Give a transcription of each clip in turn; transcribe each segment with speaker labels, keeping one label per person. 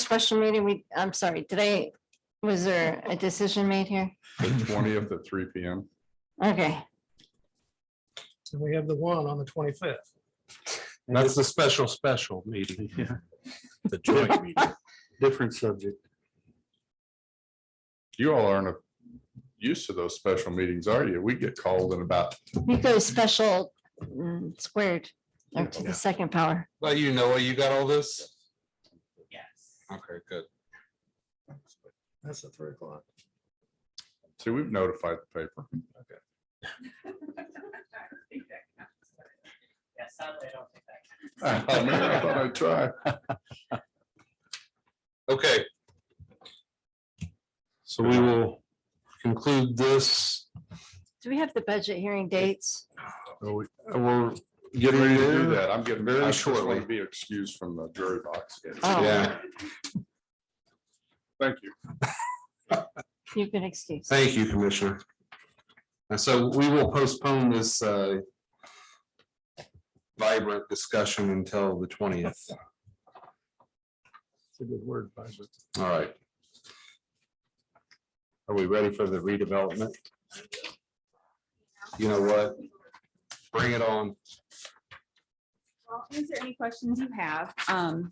Speaker 1: special meeting, we, I'm sorry, did I, was there a decision made here?
Speaker 2: The twentieth at three P M.
Speaker 1: Okay,
Speaker 3: And we have the one on the twenty-fifth.
Speaker 4: That's the special, special meeting. Yeah. The
Speaker 5: joint
Speaker 4: meeting.
Speaker 5: different subject.
Speaker 2: You all aren't used to those special meetings, are you? We get called in about,
Speaker 1: you go special mm, squared or to
Speaker 5: Yeah.
Speaker 1: the second power.
Speaker 4: Well, you know, you got all this?
Speaker 6: Yes.
Speaker 4: Okay, good.
Speaker 3: That's at three o'clock.
Speaker 2: see, we've notified the paper.
Speaker 6: Yeah, sadly, I don't think that can.
Speaker 2: Oh, man, I thought I'd try.
Speaker 4: Okay. So we will conclude this.
Speaker 1: Do we have the budget hearing dates?
Speaker 4: We're
Speaker 2: Get
Speaker 4: getting
Speaker 2: ready to do that. I'm getting
Speaker 4: Very
Speaker 2: very shortly
Speaker 4: shortly.
Speaker 2: be excused from the jury box.
Speaker 1: Oh.
Speaker 4: Yeah,
Speaker 2: Thank you.
Speaker 1: You've been excused.
Speaker 4: thank you, Commissioner. And so we will postpone this uh, vibrant discussion until the twentieth.
Speaker 3: It's a good word, budget.
Speaker 4: All right. Are we ready for the redevelopment? You know what? Bring it on.
Speaker 6: Well, answer any questions you have. Um,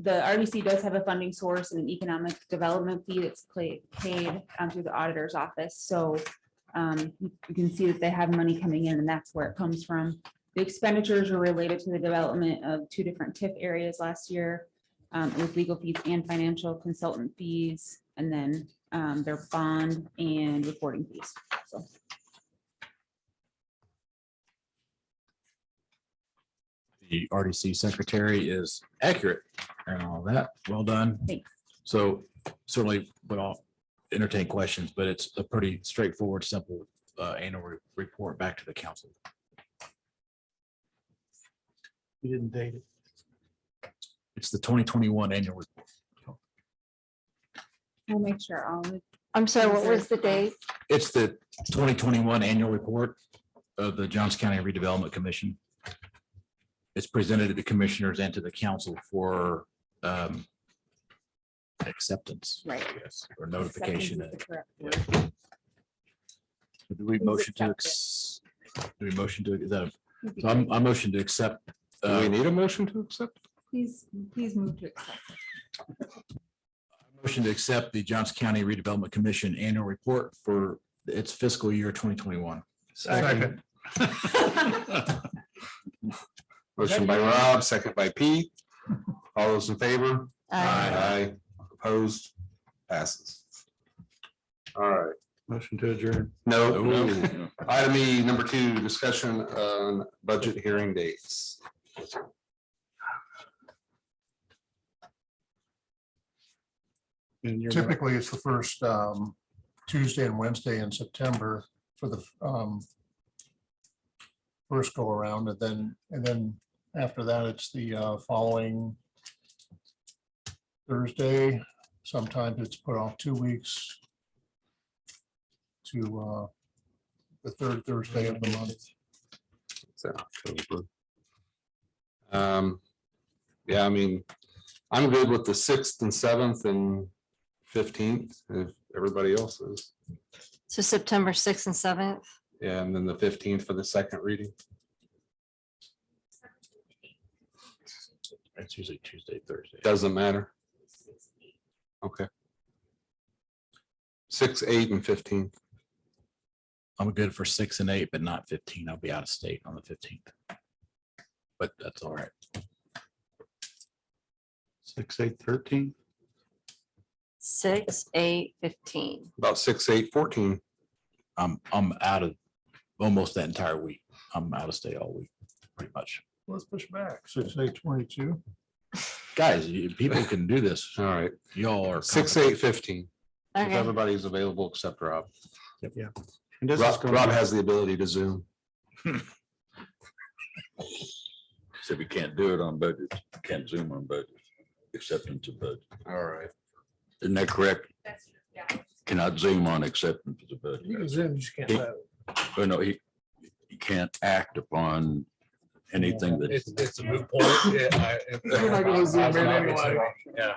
Speaker 6: the RDC does have a funding source and an economic development fee that's pla- paid um, through the auditor's office, so um, you can see that they have money coming in and that's where it comes from. The expenditures are related to the development of two different TIF areas last year um, with legal fees and financial consultant fees, and then um, their bond and reporting fees, so.
Speaker 5: The RDC secretary is accurate and all that. Well done.
Speaker 6: Thanks.
Speaker 5: So certainly we all entertain questions, but it's a pretty straightforward, simple uh, annual re- report back to the council.
Speaker 3: You didn't date it.
Speaker 5: It's the twenty twenty-one annual report.
Speaker 6: We'll make sure all the
Speaker 1: I'm sorry, what was the date?
Speaker 5: It's the twenty twenty-one annual report of the Johns County Redevelopment Commission. It's presented to the commissioners and to the council for um, acceptance.
Speaker 6: Right.
Speaker 5: Yes, or notification.
Speaker 6: Acceptance is the correct word.
Speaker 5: Do we
Speaker 6: Please
Speaker 5: motion to,
Speaker 6: accept it.
Speaker 5: ex- do we motion to, the, so I'm, I motion to accept.
Speaker 4: Do we
Speaker 5: uh,
Speaker 4: need a motion to accept?
Speaker 6: Please, please move to accept.
Speaker 5: Motion to accept the Johnson County Redevelopment Commission annual report for its fiscal year twenty twenty-one.
Speaker 4: Second. Motion by Rob, second by Pete. All those in favor?
Speaker 1: Uh,
Speaker 4: Aye. Opposed? Passes. All right.
Speaker 5: Motion to adjourn.
Speaker 4: No, no.
Speaker 2: No.
Speaker 4: Item E, number two, discussion on budget hearing dates.
Speaker 3: Typically, it's the first um, Tuesday and Wednesday in September for the um, first go around and then, and then after that, it's the uh, following Thursday. Sometimes it's put off two weeks to uh, the third Thursday of the month.
Speaker 4: It's in October. Um, yeah, I mean, I'm good with the sixth and seventh and fifteenth, if everybody else is.
Speaker 1: So September sixth and seventh,
Speaker 4: Yeah, And then the fifteenth for the second reading.
Speaker 5: It's usually Tuesday, Thursday.
Speaker 4: Doesn't matter. Okay. Six, eight and fifteen.
Speaker 5: I'm good for six and eight, but not fifteen. I'll be out of state on the fifteenth. But that's all right.
Speaker 7: Six, eight, thirteen,
Speaker 1: six, eight, fifteen.
Speaker 4: About six, eight, fourteen.
Speaker 5: I'm, I'm out of almost that entire week. I'm out of state all week, pretty much.
Speaker 3: Let's push back, six, eight, twenty-two.
Speaker 5: Guys, you- people can do this.
Speaker 4: All right,
Speaker 5: Y'all are.
Speaker 4: six,
Speaker 5: competent.
Speaker 4: eight, fifteen. If
Speaker 1: Okay,
Speaker 4: everybody's available except Rob.
Speaker 7: and this is
Speaker 4: Rob,
Speaker 7: going
Speaker 4: Rob
Speaker 7: to
Speaker 4: has the ability to zoom.
Speaker 8: So we can't do it on budget, can't zoom on budget, acceptance of budget.
Speaker 4: All right.
Speaker 8: Isn't that correct?
Speaker 6: That's, yeah.
Speaker 8: Cannot zoom on acceptance of the budget.
Speaker 3: zoom, you just can't.
Speaker 8: vote. Oh, no, he, he can't act upon anything that,
Speaker 4: It's a moot point.
Speaker 6: Everybody will zoom in
Speaker 4: anyway. Yeah.